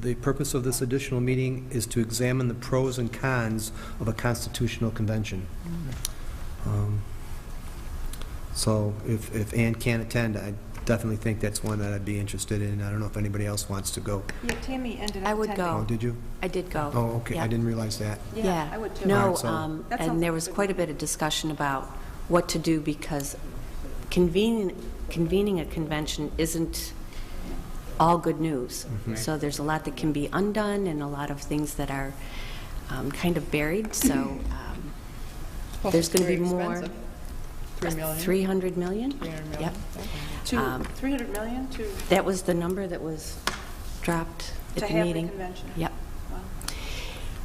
the purpose of this additional meeting is to examine the pros and cons of a constitutional convention. Um, So if, if Ann can attend, I definitely think that's one that I'd be interested in. I don't know if anybody else wants to go. Yeah, Tammy ended up I would attending. go. Oh, did you? I did go. Oh, okay, I Yeah. didn't realize that. Yeah, I would too. All No, right, so- um, That sounds and there like a was good quite a bit of discussion about what to do because convening, convening a convention isn't all good news. Mm-hmm. So there's a lot that can be undone and a lot of things that are um, kind of buried, so um, Plus there's it's going to be very more. expensive. Three million? 300 million? 300 million, Yep. Oh, Two, Um, 300 million to, That was the number that was dropped to at the have the meeting. convention. Yep. Wow.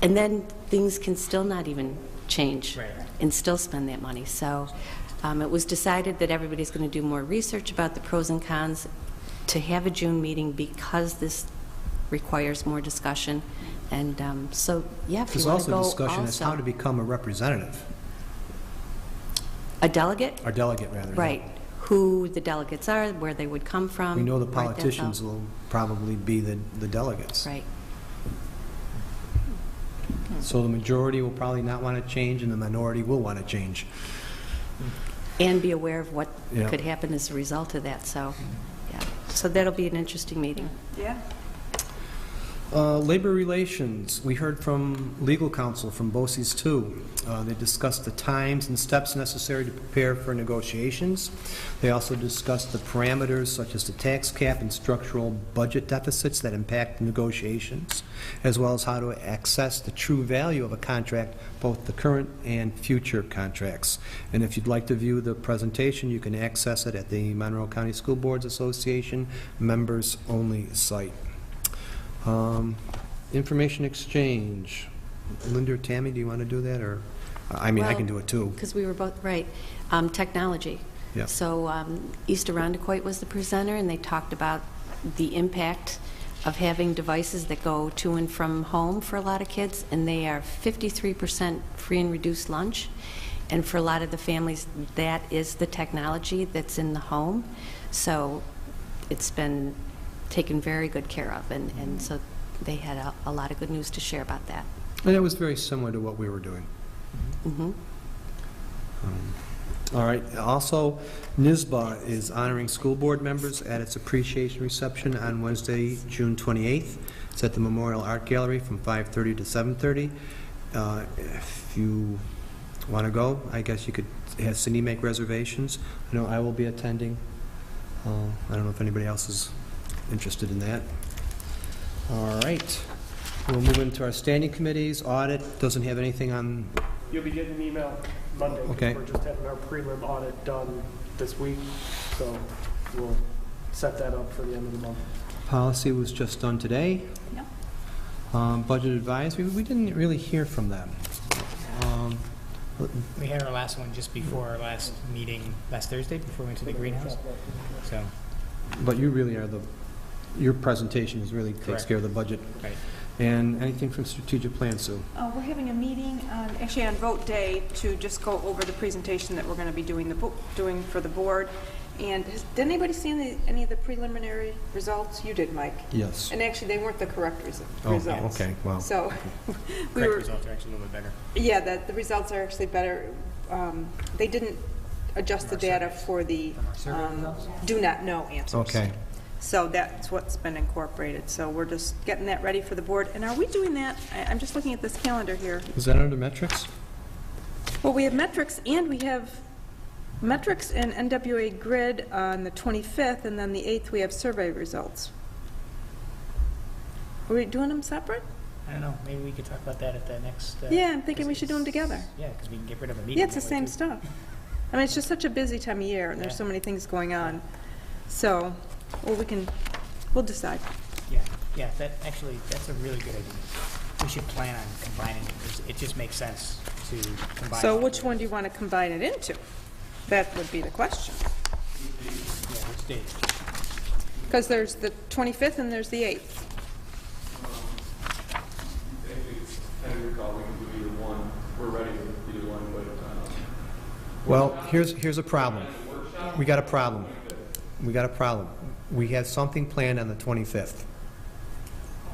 And then things can still not even change. Right. And still spend that money. So um, it was decided that everybody's going to do more research about the pros and cons to have a June meeting because this requires more discussion. And um, so, yeah, if you There's want to also go also. discussion as how to become a representative, A delegate, or delegate, rather. right, who the delegates are, where they would come from. We know the write that out. politicians will probably be the the delegates. Right. So the majority will probably not want to change, and the minority will want to change. And be aware of what Yeah. could happen as a result of that, so, yeah. So that'll be an interesting meeting. Yeah, Uh, Labor relations, we heard from legal counsel from BOSI's too. Uh, They discussed the times and steps necessary to prepare for negotiations. They also discussed the parameters such as the tax cap and structural budget deficits that impact negotiations, as well as how to access the true value of a contract, both the current and future contracts. And if you'd like to view the presentation, you can access it at the Monroe County School Boards Association Members-Only site. Um, Information exchange. Linda or Tammy, do you want to do that, or, I mean, I can do it too. Because we were both, right, um, technology. Yeah. So um, East Arundicoit was the presenter, and they talked about the impact of having devices that go to and from home for a lot of kids, and they are 53% free and reduced lunch. And for a lot of the families, that is the technology that's in the home. So it's been taken very good care of, and and so they had a- a lot of good news to share about that. And it was very similar to what we were doing. Mhm. Um, All right, also, NISBA is honoring school board members at its appreciation reception on Wednesday, June 28th. It's at the Memorial Art Gallery from 5:30 to 7:30. Uh, If you want to go, I guess you could have Cindy make reservations. I know I will be attending. Uh, I don't know if anybody else is interested in that. All right, we'll move into our standing committees. Audit doesn't have anything on You'll be getting an email Monday. 'cause Okay. We're just having our prelim audit done this week, so we'll set that up for the end of the month. Policy was just done today. Yep. Um, Budget advisory, we didn't really hear from them. Um, We had our last one just before our last meeting, last Thursday, before we went to the greenhouse. So, But you really are the, your presentation is really takes Correct. care of the budget. Right. And anything from strategic plan, Sue? Uh, we're having a meeting, on- actually on vote day, to just go over the presentation that we're going to be doing the, bo- doing for the board. And has- did anybody see any, any of the preliminary results? You did, Mike. Yes. And actually, they weren't the correct resu- Oh, results. okay, wow. So, we correct were, results are actually a little bit better. yeah, that, the results are actually better. Um, They didn't adjust the data for the um, do not know answers. Okay. So that's what's been incorporated. So we're just getting that ready for the board. And are we doing that? I- I'm just looking at this calendar here. Is that under metrics? Well, we have metrics and we have metrics and NWA grid on the 25th, and then the 8th, we have survey results. Are we doing them separate? I don't know, maybe we could talk about that at the next. uh, Yeah, I'm thinking we should do 'em together. Yeah, because we can get rid of a meeting. Yeah, it's the that way, same too. stuff. I mean, it's just such a busy time of year, and there's so many things going on. So, well, we can, we'll decide. Yeah, yeah, that, actually, that's a really good idea. We should plan on combining it, 'cause it just makes sense to combine. So it. which one do you want to combine it into? That would be the question. Yeah, which date? Because there's the 25th and there's the 8th. If it's ten year call, we can do either one. We're ready with either one, but, um, Well, here's, here's a problem. We got a problem. We got a problem. We had something planned on the 25th.